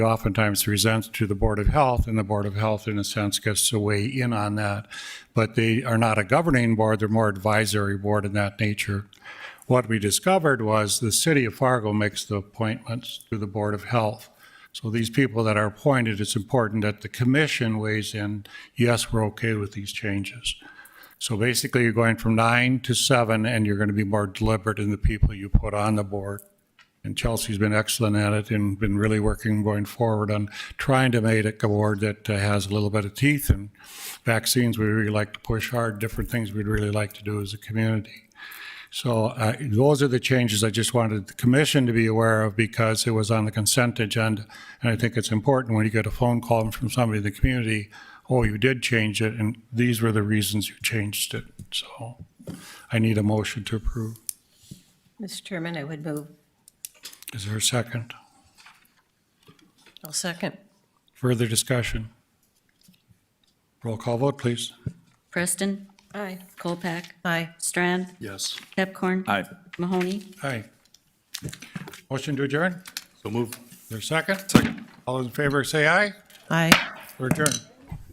It oftentimes presents to the Board of Health, and the Board of Health, in a sense, gets to weigh in on that. But they are not a governing board, they're more advisory board in that nature. What we discovered was the city of Fargo makes the appointments to the Board of Health. So these people that are appointed, it's important that the commission weighs in, yes, we're okay with these changes. So basically, you're going from nine to seven, and you're going to be more deliberate in the people you put on the board. And Chelsea's been excellent at it and been really working going forward on trying to make it a board that uh, has a little bit of teeth and vaccines we really like to push hard, different things we'd really like to do as a community. So uh, those are the changes I just wanted the commission to be aware of because it was on the consent agenda. And I think it's important when you get a phone call from somebody in the community, oh, you did change it, and these were the reasons you changed it. So I need a motion to approve. Mr. Chairman, I would move. Is there a second? I'll second. Further discussion? Roll call vote, please. Preston, Aye. Colpack, Aye. Strand, Yes. Pepcorn. Aye. Mahoney. Aye. Motion to adjourn? So move. Is there a second? Second. All those in favor, say aye. Aye. We're adjourned.